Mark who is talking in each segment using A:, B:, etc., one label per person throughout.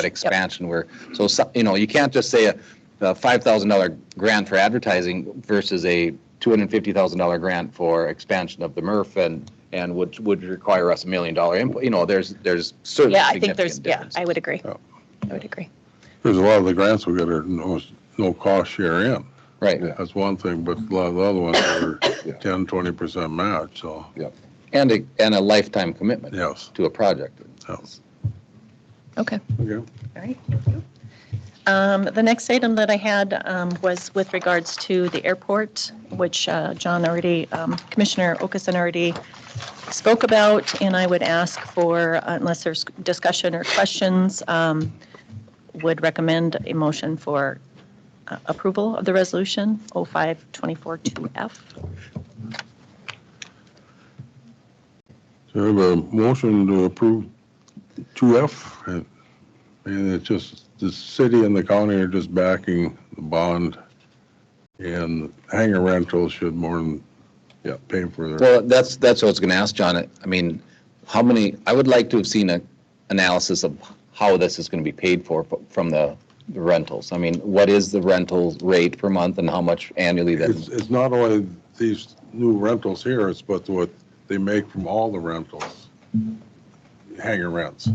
A: that expansion where, so, so- you know, you can't just say a a $5,000 grant for advertising versus a $250,000 grant for expansion of the MRF and, and would, would require us a million dollar input. You know, there's, there's certainly
B: Yeah, I think there's,
A: significant
B: yeah,
A: difference.
B: I would agree.
C: Yeah.
B: I would agree.
C: There's a lot of the grants we got are no, no cost share in.
A: Right.
C: That's one thing, but a lot of the other ones are 10, 20% match, so,
A: And a, and a lifetime commitment
C: yes.
A: to a project.
C: yes.
B: Okay.
C: Okay.
B: All right, thank you. Um, The next item that I had um, was with regards to the airport, which uh, John already, um, Commissioner Okason already spoke about, and I would ask for, uh, unless there's discussion or questions, um, would recommend a motion for uh, approval of the resolution 05242F.
C: So we have a motion to approve 2F, and and it's just, the city and the county are just backing the bond, and hangar rentals should more than, yeah, pay for their,
A: Well, that's, that's what I was going to ask, John. I mean, how many, I would like to have seen a analysis of how this is going to be paid for f- from the rentals. I mean, what is the rental rate per month and how much annually
C: it's,
A: that,
C: it's not only these new rentals here, it's but what they make from all the rentals, hangar rents.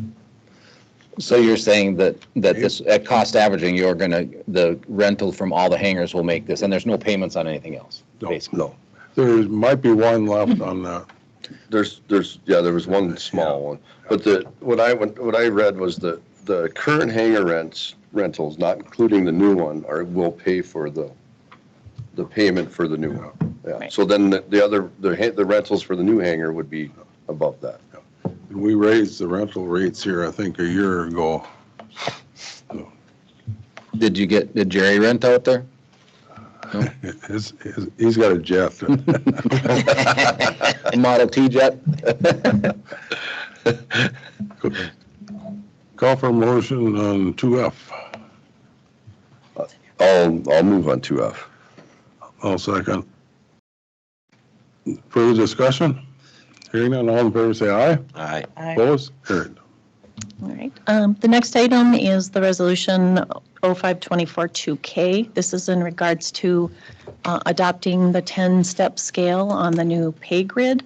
A: so you're saying that, that this, at cost averaging, you're going to, the rental from all the hangars will make this, and there's no payments on anything else,
C: No,
A: basically?
D: No,
C: There might be one left on that.
D: there's, there's, yeah, there was one small one. But the, what I, went- what I read was the, the current hangar rents, rentals, not including the new one, are, will pay for the, the payment for the new one. Yeah,
B: Right.
D: so then the- the other, the ha- the rentals for the new hangar would be above that.
C: We raised the rental rates here, I think, a year ago.
A: Did you get, did Jerry rent out there?
C: His- his- He's got a jet.
A: Model T jet?
C: Call for motion on 2F.
D: I'll, I'll move on two F.
C: I'll second. Further discussion? Hearing none, all in favor say aye.
E: Aye.
C: Opposed? Carried.
B: All right. Um, The next item is the Resolution 05242K. This is in regards to uh, adopting the 10-step scale on the new pay grid.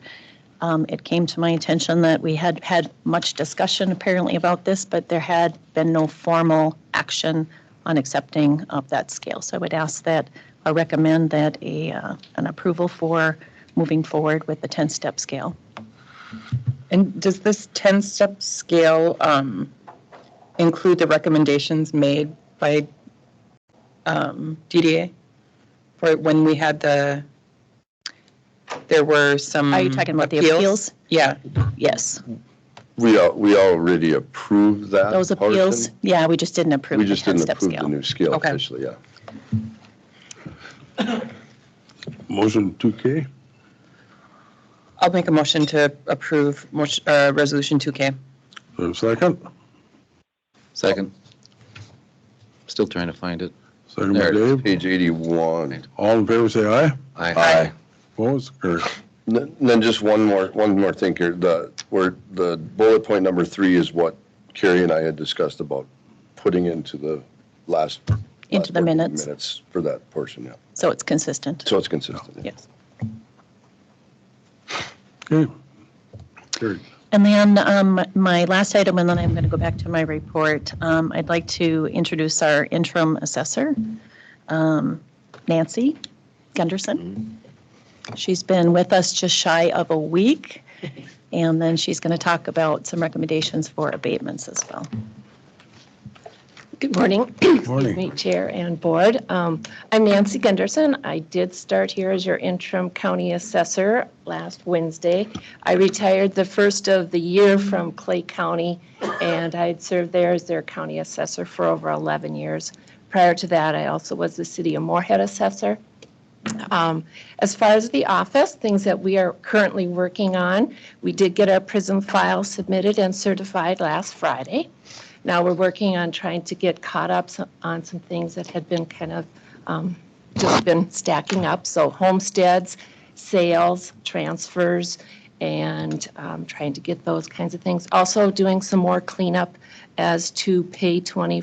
B: Um, It came to my attention that we had had much discussion apparently about this, but there had been no formal action on accepting of that scale. So I would ask that, I recommend that a, uh, an approval for moving forward with the 10-step scale.
F: And does this 10-step scale um, include the recommendations made by um, DDA? For when we had the, there were some.
B: Are you talking about the appeals?
F: Yeah,
B: Yes,
D: We, al- we already approved that.
B: those appeals,
D: portion.
B: yeah, we just didn't approve
D: We
B: the
D: just didn't
B: 10-step
D: approve the
B: scale.
D: new scale
F: Okay.
D: officially, yeah.
C: Motion 2K,
F: I'll make a motion to approve motion- uh, Resolution 2K.
C: There's a second.
A: Second. Still trying to find it.
C: Second by
A: There.
C: Dave.
D: Page eighty-one.
C: All in favor say aye.
A: Aye.
C: Opposed? Carried.
D: And Then and then just one more, one more thing here, the, where the bullet point number three is what Carrie and I had discussed about putting into the last.
B: Into the
D: last working
B: minutes.
D: Minutes for that portion, yeah.
B: So it's consistent.
D: So it's consistent. yeah.
B: Yes.
C: Okay. Carried.
B: And then um, my last item, and then I'm going to go back to my report. Um, I'd like to introduce our interim assessor, um, Nancy Gunderson. She's been with us just shy of a week, and then she's going to talk about some recommendations for abatements as well.
G: Good morning. Excuse
C: Morning.
G: me, Chair and Board. Um, I'm Nancy Gunderson. I did start here as your interim county assessor last Wednesday. I retired the first of the year from Clay County, and I had served there as their county assessor for over 11 years. Prior to that, I also was the city of Moorhead assessor. Um, As far as the office, things that we are currently working on, we did get our PRISM file submitted and certified last Friday. Now we're working on trying to get caught up so- on some things that had been kind of, um, just been stacking up. So homesteads, sales, transfers, and um, trying to get those kinds of things. Also doing some more cleanup as to pay 20